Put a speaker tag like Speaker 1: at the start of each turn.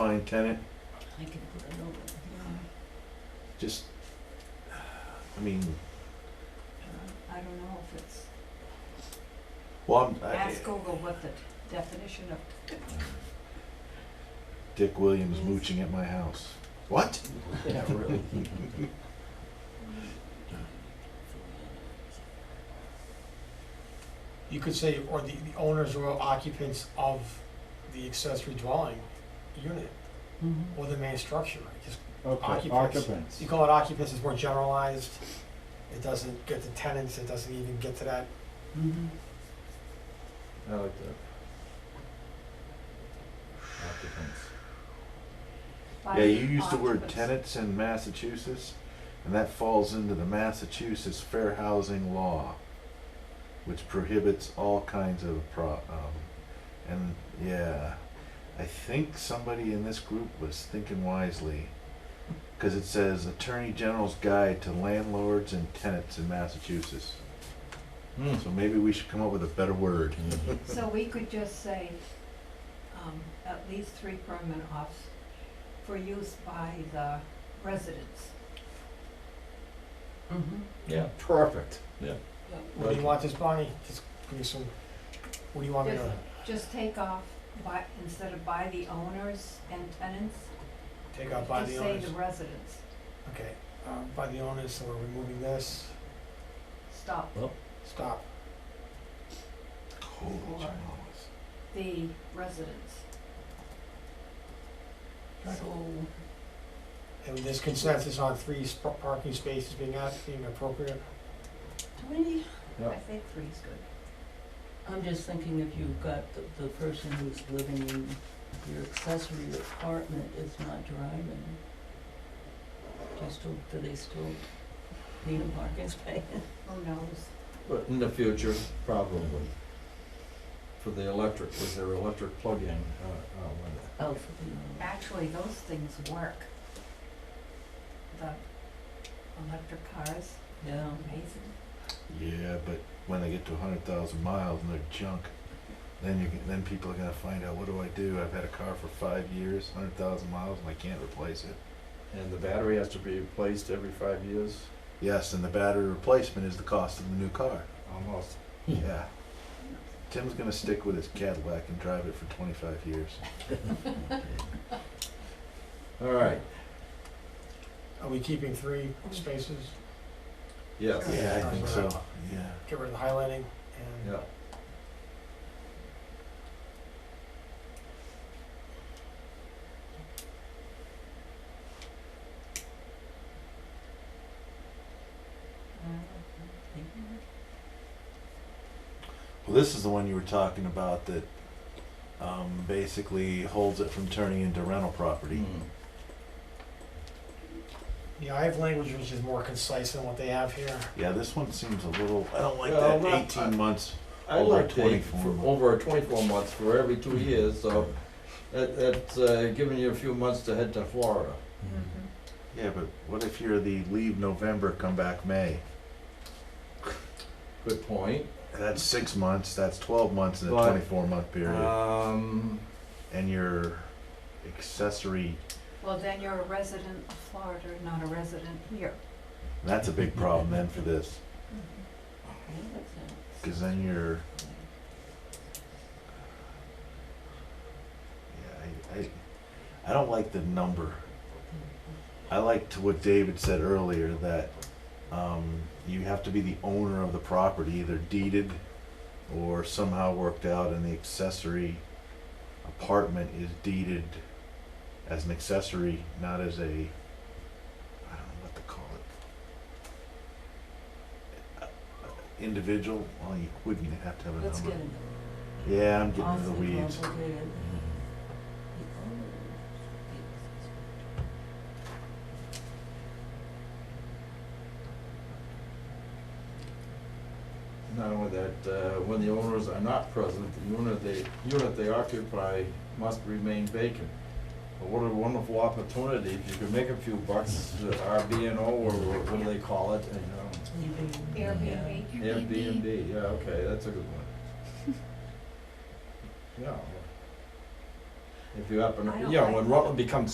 Speaker 1: only tenant,
Speaker 2: I can put it over.
Speaker 1: just, I mean,
Speaker 2: I don't know if it's,
Speaker 1: well, I'm, I,
Speaker 2: ask Google what the definition of,
Speaker 1: Dick Williams mooching at my house. What?
Speaker 3: Yeah, really.
Speaker 4: You could say, or the, the owners or occupants of the accessory dwelling unit or the main structure. Just,
Speaker 3: Okay,
Speaker 4: Occupants.
Speaker 3: occupants.
Speaker 4: you call it occupants, it's more generalized. It doesn't get to tenants, it doesn't even get to that. Mm-hmm.
Speaker 1: I like that.
Speaker 3: Occupants.
Speaker 2: by
Speaker 1: Yeah, you use the word
Speaker 2: occupants.
Speaker 1: tenants in Massachusetts, and that falls into the Massachusetts Fair Housing Law, which prohibits all kinds of pro, um, and yeah, I think somebody in this group was thinking wisely. Cause it says Attorney General's Guide to Landlords and Tenants in Massachusetts.
Speaker 3: Hmm.
Speaker 1: So maybe we should come up with a better word.
Speaker 3: Mhm.
Speaker 2: So we could just say, um, at least three permanent off, for use by the residents.
Speaker 4: Mm-hmm.
Speaker 3: Yeah, perfect.
Speaker 4: What do you want this, Bonnie? Just give me some, what do you want me to
Speaker 2: Just, just take off by, instead of by the owners and tenants,
Speaker 4: take out by the
Speaker 2: just
Speaker 4: owners?
Speaker 2: say the residents,
Speaker 4: Okay, uh, by the owners, so we're removing this.
Speaker 2: stop.
Speaker 4: Stop.
Speaker 1: Holy
Speaker 2: Or-
Speaker 1: Charles.
Speaker 2: the residents.
Speaker 4: Right.
Speaker 2: So,
Speaker 4: And there's consensus on three sp- parking spaces being at, being appropriate.
Speaker 2: three,
Speaker 3: Yeah.
Speaker 2: I think three is good.
Speaker 5: I'm just thinking if you've got the, the person who's living in your accessory apartment is not driving, do you still, do they still need a parking space?
Speaker 2: Who knows?
Speaker 3: But in the future, probably. For the electric, with their electric plug-in, uh, uh, when-
Speaker 5: Oh, for the,
Speaker 2: Actually, those things work. The electric cars,
Speaker 5: yeah,
Speaker 2: amazing.
Speaker 1: Yeah, but when they get to 100,000 miles and they're junk, then you are then people are gonna find out what do I do? I've had a car for five years, 100,000 miles, and I can't replace it.
Speaker 3: and the battery has to be replaced every five years,
Speaker 1: Yes, and the battery replacement is the cost of the new car.
Speaker 3: almost.
Speaker 5: Hmm.
Speaker 1: Yeah. Tim's gonna stick with his Cadillac and drive it for 25 years.
Speaker 3: All right,
Speaker 4: Are we keeping three
Speaker 2: Mm-hmm.
Speaker 4: spaces?
Speaker 3: yes,
Speaker 1: Yeah, I think so. Yeah.
Speaker 4: Get rid of the highlighting and
Speaker 3: yeah.
Speaker 1: Well, this is the one you were talking about that um, basically holds it from turning into rental property.
Speaker 3: Hmm.
Speaker 4: Yeah, I have language which is more concise than what they have here.
Speaker 1: Yeah, this one seems a little. I don't like
Speaker 3: Well,
Speaker 1: that.
Speaker 3: not-
Speaker 1: 18 months.
Speaker 3: I
Speaker 1: Over
Speaker 3: like the,
Speaker 1: 24
Speaker 3: for,
Speaker 1: months.
Speaker 3: over twenty-four months, for every two years, so that, that's, uh, giving you a few months to head to Florida.
Speaker 2: Mm-hmm.
Speaker 1: Yeah, but what if you're the leave November, come back May?
Speaker 3: Good point.
Speaker 1: That's six months, that's 12 months in a
Speaker 3: But,
Speaker 1: 24 month period.
Speaker 3: Um,
Speaker 1: and your accessory,
Speaker 2: Well, then you're a resident of Florida, not a resident here.
Speaker 1: that's a big problem then for this,
Speaker 5: yeah, that's
Speaker 1: because then you're.
Speaker 5: it.
Speaker 1: Yeah, I, I, I don't like the number. I like to what David said earlier that um, you have to be the owner of the property, either deeded or somehow worked out, and the accessory apartment is deeded as an accessory, not as a. I don't know what to call it. Uh, Individual. Well, you wouldn't have to have a
Speaker 5: Let's get
Speaker 1: number.
Speaker 5: into
Speaker 1: Yeah, I'm getting into the
Speaker 5: awfully
Speaker 1: weeds.
Speaker 5: complicated.
Speaker 3: not only that, uh, when the owners are not present, the unit they, unit they occupy must remain vacant. But What a wonderful opportunity, if you can make a few bucks, uh, RB and O, or wha- what do they call it, you
Speaker 5: Leaving-
Speaker 2: Airbnb.
Speaker 3: know, Airbnb, yeah, okay, that's a good one. Yeah, If you happen,
Speaker 2: I
Speaker 3: to
Speaker 2: don't
Speaker 3: yeah,
Speaker 2: like
Speaker 3: when
Speaker 2: that.
Speaker 3: Rutland becomes